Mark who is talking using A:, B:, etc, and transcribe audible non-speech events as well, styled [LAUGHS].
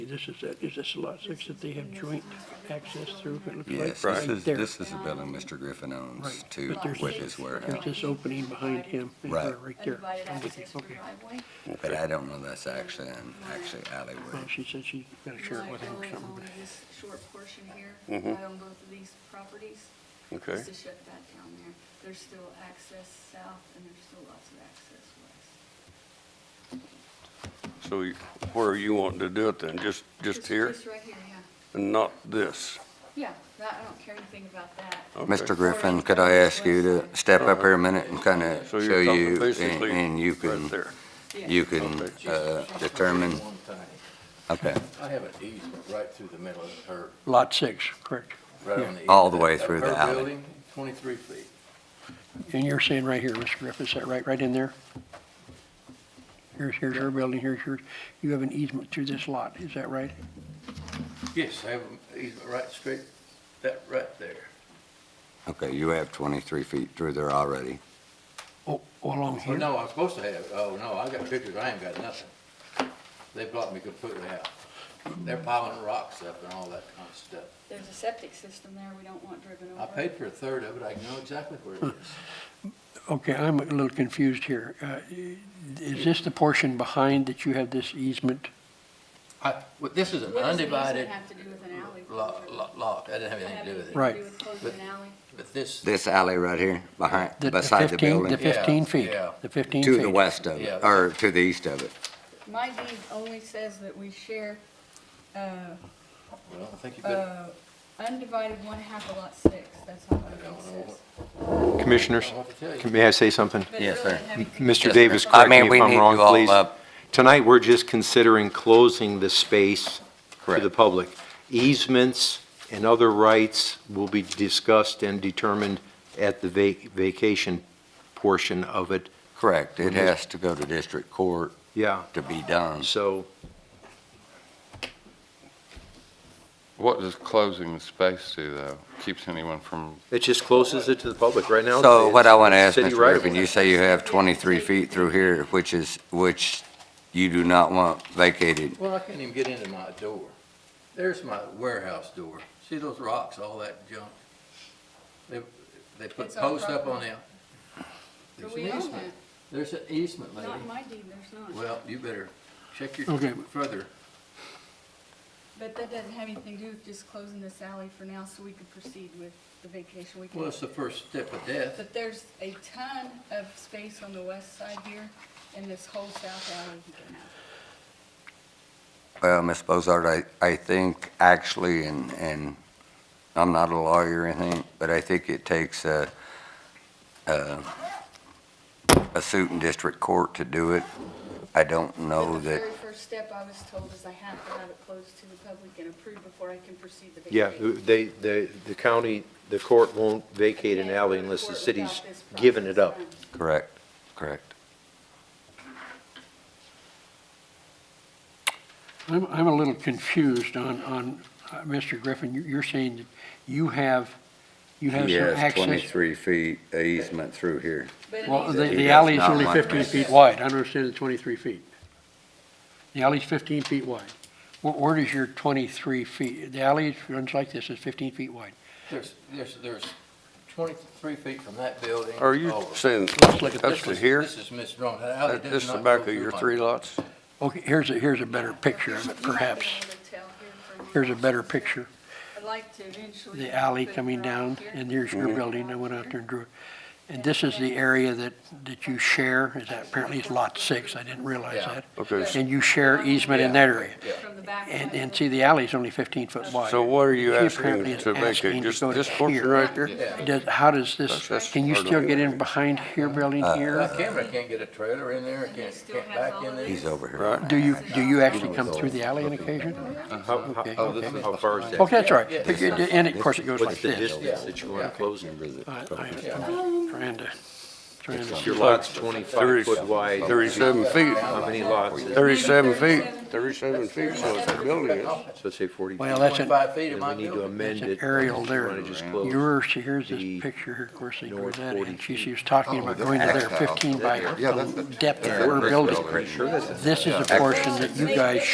A: This is, that- is this lot six that they have joint access through, it looks like?
B: Yes,
A: right
B: this is,
A: there.
B: this is the building Mr. Griffin owns
A: Right,
B: too,
A: but there's-
B: with his warehouse.
A: There's this opening behind him, and
B: Right.
A: her right there.
C: Undivided
A: I'm with you.
C: access for
A: Okay.
C: driveway.
B: But I don't know that's actually, an actually alleyway.
A: Well, she said she's gonna share it with him or
C: Mine
A: something.
C: only owns this short portion here. I own both of these properties.
D: Mm-hmm. Okay.
C: Just to shut that down there. There's still access south and there's still lots of access west.
D: So you- where are you wanting to do it then? Just, just here
C: Just right here, yeah.
D: and not this?
C: Yeah, that, I don't care anything about that.
D: Okay.
B: Mr. Griffin, could I ask you to step up here a minute and kind of show
D: So you're talking
B: you, and-
D: basically
B: and you
D: Right
B: can,
D: there.
C: Yeah.
B: you can
D: Okay.
B: uh, determine,
E: One thing,
B: okay,
E: I have an easement right through the middle of her,
A: Lot six, correct.
E: right on the.
B: All the
E: eas-
B: way
E: of
B: through the
E: her
B: alley.
E: building, Twenty-three feet.
A: And you're saying right here, Mr. Griffin, is that right, right in there? Here's, here's her building, here's yours. You have an easement through this lot, is that right?
E: Yes, I have an easement right straight, that right there.
B: okay, you have 23 feet through there already.
A: Oh, along
E: Well,
A: here?
E: no, I was supposed to have, oh, no, I got pictures, I ain't got nothing. They blocked me completely out. They're piling rocks up and all that kind of stuff.
C: There's a septic system there we don't want driven over.
E: I paid for a third of it, I know exactly where it is.
A: Okay, I'm a little confused here. Uh, Is this the portion behind that you have this easement?
E: [LAUGHS] I, well, this is an
C: What does an easement
E: undivided
C: have to do with an alley?
E: lot, lot, lot, that didn't have anything to do with it.
A: Right.
C: Do with closing an alley?
E: But this,
B: This alley right here, behind,
A: The- the
B: beside the
A: 15 The
B: building,
E: Yeah,
A: 15 feet,
E: yeah.
A: the 15 feet.
B: to the west of it,
E: Yeah.
B: or to the east of it.
C: My deed only says that we share, uh,
E: well, I think you better,
C: uh, undivided one half of lot six, that's all
E: I
C: it
E: don't know
C: says.
E: what-
F: Commissioners,
E: I don't know what to tell you.
F: can- may I say something?
C: But it
B: Yes,
C: really
B: sir.
C: had to do
F: Mr.
C: with-
F: Davis,
B: I
F: correct me
B: mean, we
F: if
B: need
F: I'm
B: you
F: wrong,
B: all
F: please.
B: up.
F: Tonight, we're just considering closing the space to the
B: Correct.
F: public. Easements and other rights will be discussed and determined at the va- vacation portion of it.
B: Correct, it has to go to district court
F: Yeah,
B: to be done.
F: so
G: What does closing the space do, though? Keeps anyone from,
F: it just closes it to the public right now.
B: So what I want to ask,
F: City
B: Mr.
F: right of
B: Griffin,
F: way.
B: you say you have 23 feet through here, which is, which you do not want vacated.
E: Well, I can't even get into my door. There's my warehouse door. See those rocks, all that junk? They, they put
C: It's our
E: posts up on
C: property.
E: it. There's
C: But
E: an
C: we own
E: easement. There's an easement,
C: that.
E: lady.
C: Not in my deed, there's not.
E: Well, you better check your,
A: Okay.
E: further.
C: But that doesn't have anything to do with just closing this alley for now so we can proceed with the vacation
E: Well,
C: weekend.
E: it's the first step of death.
C: But there's a ton of space on the west side here and this whole south alley you can have.
B: Well, Ms. Bozard, I, I think actually, and, and I'm not a lawyer or anything, but I think it takes a, a, a suit in district court to do it. I don't know
C: But The
B: Oh, that,
C: very first step I was told is I have to have it closed to the public and approved before I can proceed the
F: Yeah,
C: vacation.
F: they, they, the county, the court won't vacate an alley unless the city's given it up.
B: correct, correct.
A: I'm, I'm a little confused on, on, uh, Mr. Griffin, you- you're saying that you have, you have
B: He
A: some
B: has
A: access.
B: 23 feet easement through here.
C: But
A: Well,
C: it
A: the,
C: is-
B: He
A: the
B: does
A: alley is
B: not
A: only
B: want
A: fifteen
B: this.
A: feet wide, I understand it's twenty-three feet. The alley's fifteen feet wide. Where, where does your twenty-three feet, the alley runs like this, it's fifteen feet wide.
E: There's, there's, there's twenty-three feet from that building.
D: Are you
A: Oh.
E: over.
D: saying
A: Let's look at
D: up
A: this
D: to
A: one.
D: here?
E: This is misdrawn. That alley
D: That-
E: does
D: This is the
E: not go
D: back of
E: through
D: your
E: my-
D: three lots?
A: Okay, here's a, here's a better picture of it,
C: You might be
A: perhaps.
C: able to tell here from your
A: Here's a better
C: office.
A: picture.
C: I'd like to eventually.
A: the alley
C: put
A: coming
C: her
A: down,
C: out here.
A: and there's
D: Mm-hmm.
A: your building, I went out there and drew it. And this is the area that, that you share, is that apparently it's lot six, I didn't realize
E: Yeah.
A: that.
D: Okay, s-
A: And you share easement in that area.
C: From the back.
A: And,
C: one.
A: and see, the alley's only fifteen foot wide.
D: so what are you
A: She
D: asking
A: apparently is
D: to
A: asking
D: vacate?
A: to
D: Just
A: go to
D: this portion
A: here.
D: right there?
A: Does, how does this,
D: That's- that's
A: can you
D: part of
A: still
D: it.
A: get in behind here, building
F: Uh,
E: My
A: here?
E: camera can't get a trailer in there,
C: he
E: can't,
C: still
E: can't
C: has
E: back
C: all
E: in
C: of
E: there.
B: He's over here.
D: Right.
A: Do you, do you actually come through the alley on occasion? Okay, okay.
F: How far is that?
A: Okay, that's all right. And of course, it goes like
F: What's the
A: this.
F: distance that you want to close?
A: I, I, trying to, trying to.
F: Your lot's 25 foot
B: Oh.
F: wide.
D: 37 feet,
F: How many lots?
D: 37 feet, 37 feet, so it's a building. It's-
F: So say 40.
A: Well, that's an,
E: Twenty-five feet of
F: And we
E: my
F: need to
E: building.
F: amend
A: It's
F: it.
A: an aerial there.
F: You wanna just close-
A: Yours, see, here's
F: the
A: this picture here, of course, they drew
F: north Oh,
A: that,
F: 40
A: and she, she was talking about going to there, fifteen by
G: Yeah, that's-
A: depth of her building. This is a portion that you guys